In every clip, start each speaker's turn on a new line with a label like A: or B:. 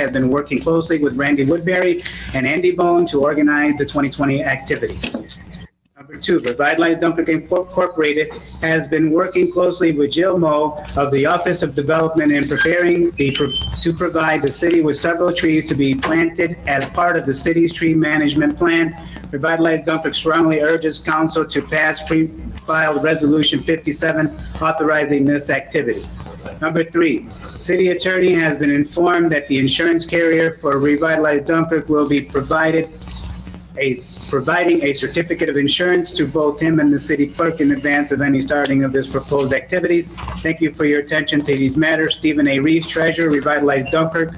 A: has been working closely with Randy Woodbury and Andy Bone to organize the 2020 activity. Number two, Revitalize Dunkirk Incorporated has been working closely with Jill Moe of the Office of Development in preparing the, to provide the city with several trees to be planted as part of the city's tree management plan. Revitalize Dunkirk strongly urges council to pass pre-filed Resolution 57 authorizing this activity. Number three, city attorney has been informed that the insurance carrier for Revitalize Dunkirk will be provided a, providing a certificate of insurance to both him and the city clerk in advance of any starting of this proposed activities. Thank you for your attention to these matters. Stephen A. Reeves, Treasurer, Revitalize Dunkirk.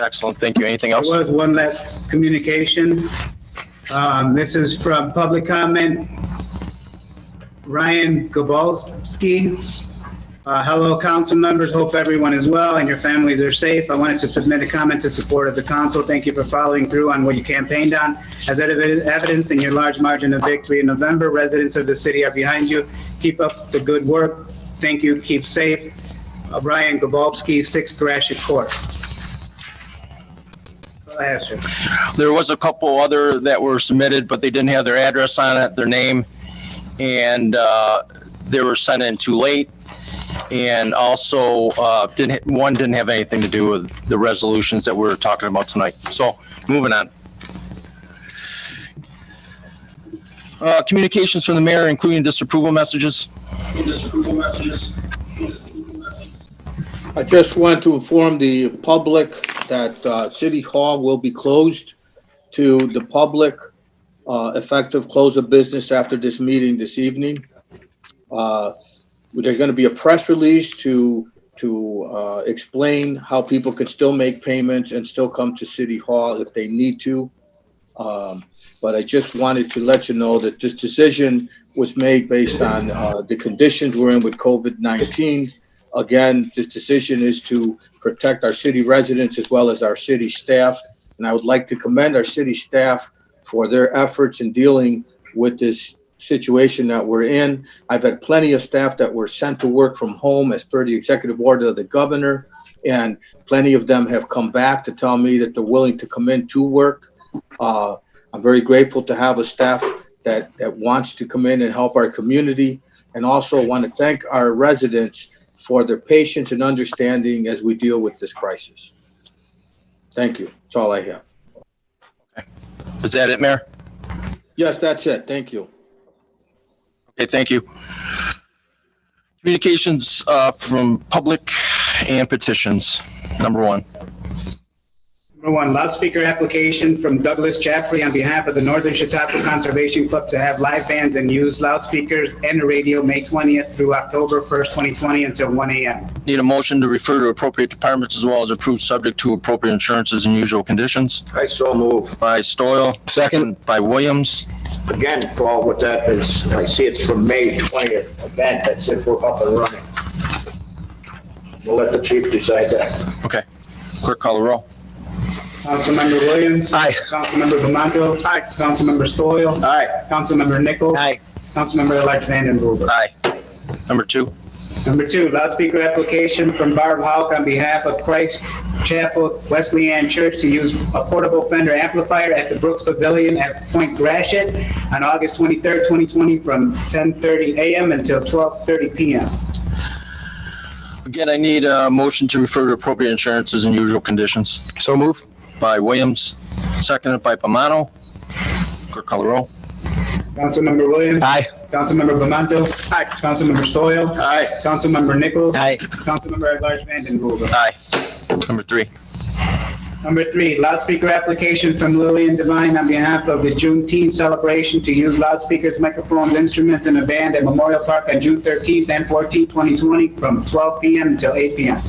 B: Excellent, thank you. Anything else?
A: There was one last communication. Um, This is from public comment. Ryan Gabalski. Uh, Hello, council members. Hope everyone is well and your families are safe. I wanted to submit a comment to support of the council. Thank you for following through on what you campaigned on. As ev- evidence in your large margin of victory in November, residents of the city are behind you. Keep up the good work. Thank you. Keep safe. Uh, Ryan Gabalski, 6 Grashit Court. Go ahead, sir.
B: There was a couple other that were submitted, but they didn't have their address on it, their name, and uh, they were sent in too late. And also, uh, didn't, one didn't have anything to do with the resolutions that we're talking about tonight. So, moving on. Uh, Communications from the mayor, including disapproval messages.
C: I just want to inform the public that uh, City Hall will be closed to the public, uh, effective close of business after this meeting this evening. Uh, There's going to be a press release to, to uh, explain how people can still make payments and still come to City Hall if they need to. Um, But I just wanted to let you know that this decision was made based on uh, the conditions we're in with COVID-19 again, this decision is to protect our city residents as well as our city staff. And I would like to commend our city staff for their efforts in dealing with this situation that we're in. I've had plenty of staff that were sent to work from home as per the executive order of the governor. And plenty of them have come back to tell me that they're willing to come in to work. Uh, I'm very grateful to have a staff that, that wants to come in and help our community. And also want to thank our residents for their patience and understanding as we deal with this crisis. Thank you. That's all I have.
B: Is that it, Mayor?
C: Yes, that's it. Thank you.
B: Okay, thank you. Communications uh, from public and petitions, number one.
A: Number one, loudspeaker application from Douglas Chaffrey on behalf of the Northern Chautauqua Conservation Club to have live bands and use loudspeakers and the radio May 20th through October 1st, 2020 until 1 a.m.
B: Need a motion to refer to appropriate departments as well as approved subject to appropriate insurances and usual conditions
D: I so move.
B: by Stoyl. Second. By Williams.
D: Again, Paul, what that is, I see it's from May 20th event, that's if we're up and running. We'll let the chief decide that.
B: Okay. Clerk call the roll.
A: Councilmember Williams.
B: Aye.
A: Councilmember Bamanto. Aye. Councilmember Stoyl.
B: Aye.
A: Councilmember Nichols.
B: Aye.
A: Councilmember-elect Vandenhuber.
B: Aye. Number two.
A: Number two, loudspeaker application from Barb Houck on behalf of Christ Chapel Wesleyan Church to use a portable Fender amplifier at the Brooks Pavilion at Point Gratiot on August 23rd, 2020, from 10:30 a.m. until 12:30 p.m.
B: Again, I need a motion to refer to appropriate insurances and usual conditions. So move. By Williams. Seconded by Pomano. Clerk call the roll.
A: Councilmember Williams.
B: Aye.
A: Councilmember Bamanto. Aye. Councilmember Stoyl.
B: Aye.
A: Councilmember Nichols.
B: Aye.
A: Councilmember at large Vandenhuber.
B: Aye. Number three.
A: Number three, loudspeaker application from Lillian Devine on behalf of the Juneteenth celebration to use loudspeakers, microphones, instruments, and a band at Memorial Park on June 13th and 14th, 2020, from 12 p.m. until 8 p.m.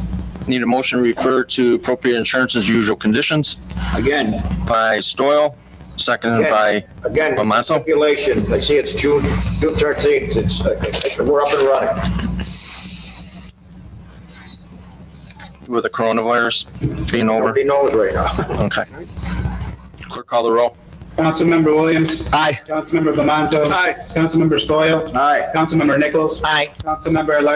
B: Need a motion to refer to appropriate insurances, usual conditions
D: Again,
B: by Stoyl. Seconded by
D: again,
B: Pomato.
D: stipulation, I see it's June, June 13th, it's, uh, we're up and running.
B: with the coronavirus being over.
D: Nobody knows right now.
B: Okay. Clerk call the roll.
A: Councilmember Williams.
B: Aye.
A: Councilmember Bamanto.
B: Aye.
A: Councilmember Stoyl.
D: Aye.
A: Councilmember Nichols.
B: Aye.
A: Councilmember at large